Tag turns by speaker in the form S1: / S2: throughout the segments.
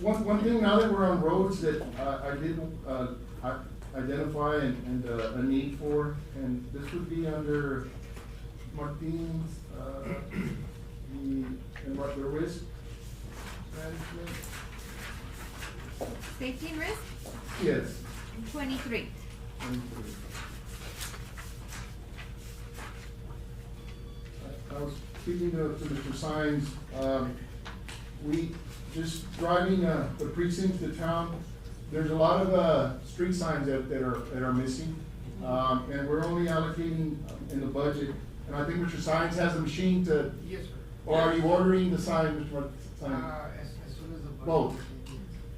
S1: One, one thing, now that we're on roads that uh, I did uh, i- identify and, and uh, a need for, and this would be under Martin's, uh, the, and what, the risk management?
S2: Safety and risk,
S1: Yes.
S2: twenty-three.
S1: Thank you. I- I was speaking to, to Mr. Sines, um, we, just driving, uh, the precincts to town, there's a lot of, uh, street signs that, that are, that are missing. Um, and we're only allocating in the budget, and I think Mr. Sines has the machine to,
S3: Yes, sir.
S1: or are you ordering the sign, Mr. Mart-
S3: Uh,
S1: Sines?
S3: as, as soon as the. budget-
S1: Both.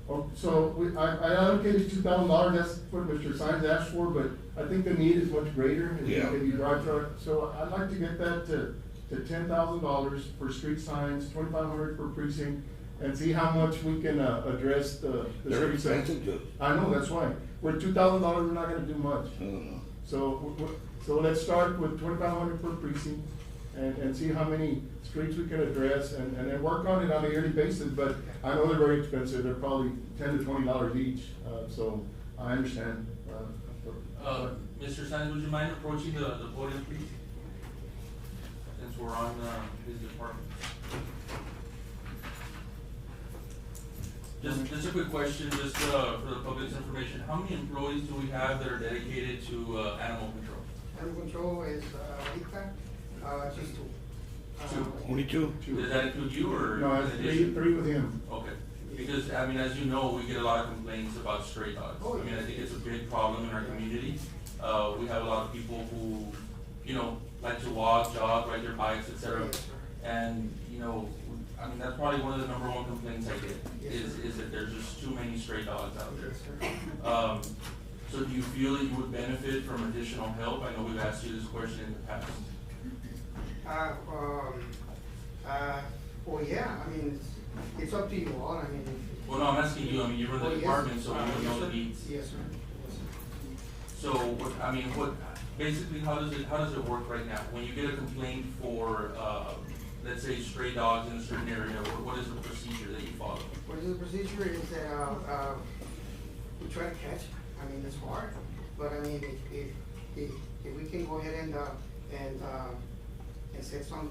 S1: Oh, So we, I, I allocated two thousand dollars, that's what Mr. Sines asked for, but I think the need is much greater. if you-
S4: Yeah.
S1: If you drive truck, so I'd like to get that to, to ten thousand dollars for street signs, twenty-five hundred per precinct, and see how much we can, uh, address the. the
S4: They're
S1: street signs.
S4: expensive, Judge.
S1: I know, that's why, with two thousand dollars, we're not gonna do much.
S4: I don't know.
S1: So, w- w- so let's start with twenty-five hundred per precinct and, and see how many streets we can address and, and then work on it on a yearly basis. But I know they're very expensive, they're probably ten to twenty dollars each, uh, so I understand. uh,
S5: Uh, Mr. Sines, would you mind approaching the, the podium, please? Since we're on, uh, his department. Just, just a quick question, just, uh, for the public's information, how many employees do we have that are dedicated to, uh, animal control?
S3: Animal control is, uh, Rita, uh, just two. Uh,
S5: Two.
S4: Only two?
S1: two.
S5: Does that include you or?
S1: No,
S5: in
S1: it's three,
S5: addition? Oh,
S1: three with him.
S5: Okay, because, I mean, as you know, we get a lot of complaints about stray dogs.
S3: Oh,
S5: I mean, I
S3: yeah.
S5: think it's a big problem in our community. Uh, we have a lot of people who, you know, like to walk, jog, ride their bikes, et cetera.
S3: Yes, sir.
S5: And, you know, I mean, that's probably one of the number one complaints I get,
S3: Yes,
S5: is,
S3: sir.
S5: is that there's just too many stray dogs out there.
S3: Yes, sir.
S5: Um, so do you feel that you would benefit from additional help? I know we've asked you this question in the past.
S3: Uh, um, uh, well, yeah, I mean, it's, it's up to you all, I mean. if-
S5: Well, no, I'm asking you, I mean, you run
S3: Oh,
S5: the
S3: yes.
S5: department, so
S3: Uh,
S5: you would
S3: yes,
S5: know the
S3: sir.
S5: needs.
S3: Yes, sir. Yes, sir.
S5: So, what, I mean, what, basically, how does it, how does it work right now? When you get a complaint for, uh, let's say stray dogs in a certain area, what, what is the procedure that you follow?
S3: What is the procedure is that, uh, uh, we try to catch, I mean, it's hard, but I mean, if, if, if, if we can go ahead and, uh, and, uh, and set some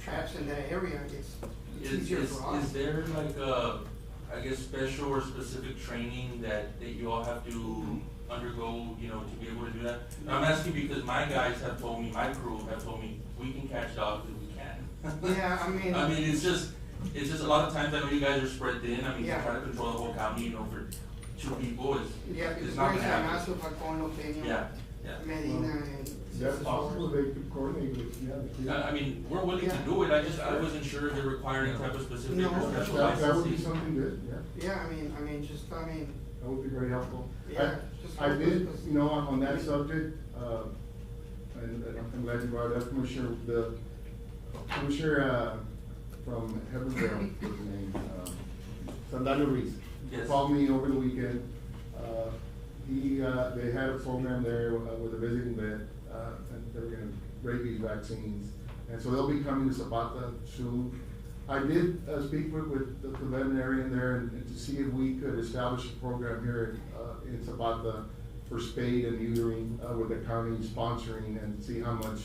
S3: traps in that area, it's it's
S5: Is,
S3: easier
S5: is,
S3: for us.
S5: is there like a, I guess, special or specific training that, that you all have to undergo, you know, to be able to do that? And I'm asking because my guys have told me, my crew have told me, we can catch dogs if we can.
S3: Yeah, I mean-
S5: I mean, it's just, it's just a lot of times, I know you guys are spread thin, I mean, you
S3: Yeah.
S5: try to control the whole county, you know, for two people, it's,
S3: Yeah,
S5: it's
S3: because
S5: not
S3: San
S5: gonna
S3: Ignacio,
S5: happen.
S3: Falcón, Peña,
S5: Yeah, yeah.
S3: uh, Medina, and.
S1: That's possible, they could coordinate with, yeah. the three.
S5: I, I mean, we're willing to do it, I just, I wasn't sure if they require any type of specific
S3: No.
S5: or special
S1: That, that would be
S5: license.
S1: something good, yeah.
S3: Yeah, I mean, I mean, just, I mean,
S1: That would be very helpful. I-
S3: Yeah, just-
S1: I did, you know, on on that subject, uh, and and I'm glad you brought it up, Commissioner, the, Commissioner, uh, from Heavenville, his name, um, Sandalwood Reese.
S5: Yes.
S1: Called me over the weekend, uh, he, uh, they had a program there uh, with a visiting vet, uh, and they were gonna rabies vaccines. And so they'll be coming to Zapata soon. I did, uh, speak with, with the the veterinarian there and and to see if we could establish a program here, uh, in Zapata for spade and neutering, uh, with the county sponsoring and see how much,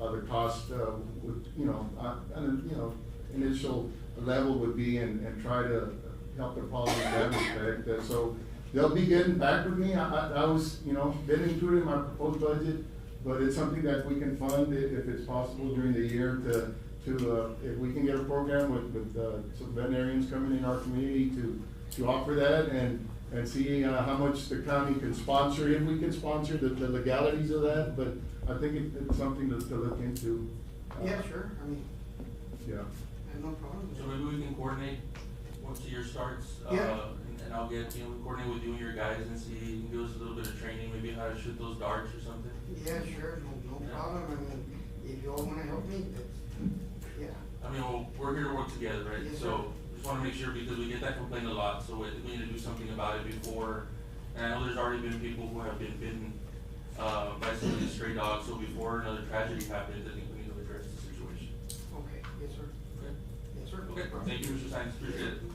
S1: uh, the cost, uh, would, you know, uh, and, you know, initial level would be and, and try to help the problem in that respect. Uh, So they'll be getting back with me. I, I, I was, you know, didn't include it in my proposed budget, but it's something that we can fund i- if it's possible during the year to, to, uh, if we can get a program with, with, uh, some veterinarians coming in our community to, to offer that and, and see, uh, how much the county can sponsor, if we can sponsor the, the legalities of that, but I think it, it's something to, to look into. Uh,
S3: yeah, sure, I mean,
S1: Yeah.
S3: I have no problem. with
S5: So
S3: it.
S5: maybe we can coordinate once the year starts, uh,
S3: Yeah.
S5: and- and I'll get, you know, coordinate with you and your guys and see, you can give us a little bit of training, maybe how to shoot those darts or something.
S3: Yeah, sure, no, no
S5: Yeah.
S3: problem, I mean, if you all wanna help me, that's, yeah,
S5: I mean, we'll- we're here to work together, right?
S3: Yes, sir.
S5: So just wanna make sure because we get that complaint a lot, so we we need to do something about it before. And I know there's already been people who have been bitten, uh, by some of these stray dogs, so before another tragedy happens, I think we need to address the situation.
S3: okay, yes, sir,
S5: Okay?
S3: yes, sir. no
S5: Okay,
S3: problem.
S5: thank you, Mr. Science, appreciate it.